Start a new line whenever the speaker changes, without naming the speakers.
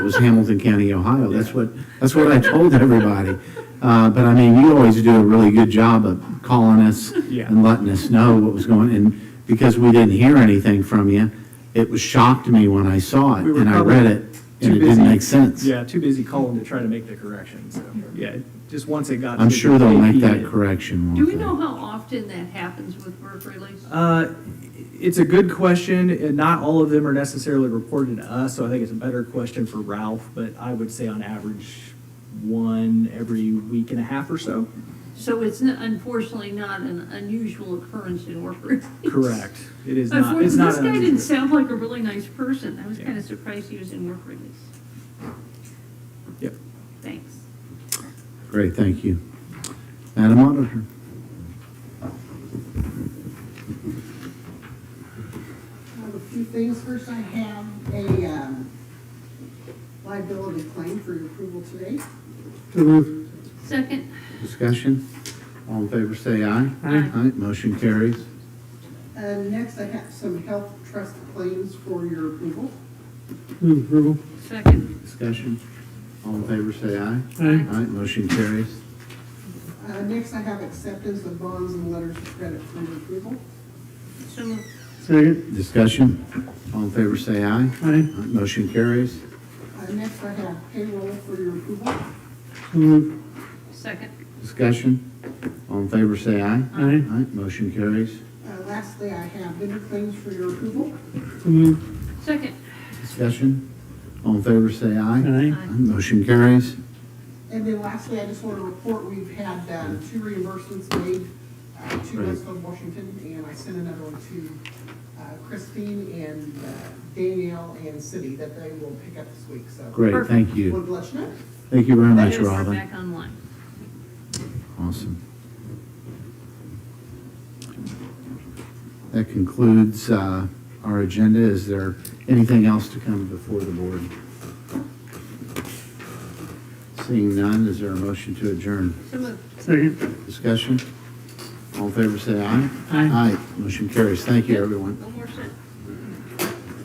It was Hamilton County, Ohio. That's what, that's what I told everybody. Uh, But I mean, you always do a really good job of calling us
Yeah.
and letting us know what was going, and because we didn't hear anything from you, it was shocked me when I saw it
We were
and I
probably
read it,
too
and it
busy-
didn't make sense.
Yeah, too busy calling to try to make the correction, so, yeah, just once it got.
I'm
to
sure
the
they'll make
AP,
that correction. won't
Do we
they?
know how often that happens with work release?
Uh, It's a good question, and not all of them are necessarily reported to us, so I think it's a better question for Ralph, but I would say on average, one every week and a half or so.
So it's n- unfortunately not an unusual occurrence in work release.
Correct. It is not,
Unfortunately,
it's not.
this
an
guy didn't
unusual-
sound like a really nice person. I was
Yeah.
kind of surprised he was in work release.
Yep.
Thanks.
Great, thank you. Madam Auditor?
I have a few things. First, I have a um, liability claim for your approval today.
Second,
Discussion? All in favor, say aye.
Aye.
Aye, motion carries.
Uh, Next, I have some health trust claims for your approval.
second,
Discussion? All in favor, say aye.
Aye.
Aye, motion carries.
Uh, Next, I have acceptance of bonds and letters of credit for your approval.
so moved.
Second.
Discussion? All in favor, say aye.
Aye.
Aye, Motion carries.
Uh, Next, I have payroll for your approval. Uh,
So moved.
Second,
Discussion? All in favor, say aye.
Aye.
Aye, motion carries.
Uh, Lastly, I have vendor claims for your approval.
So moved.
second,
Discussion? All in favor, say aye.
Aye.
Aye.
Motion carries.
And then lastly, I just want to report, we've had um, two reimbursements made uh, to
Right.
Westfield, Washington, and I sent another one to uh, Christine and uh, Danielle and Cindy that they will pick up this week, so.
Great, thank
Wanted
you.
to let you know.
Thank you very much,
Yes, we're
Robin.
back online.
Awesome. That concludes uh, our agenda. Is there anything else to come before the board? Seeing none, is there a motion to adjourn?
So moved.
Second.
Discussion? All in favor, say aye.
Aye.
Aye. Motion carries. Thank you, everyone.
One more sentence.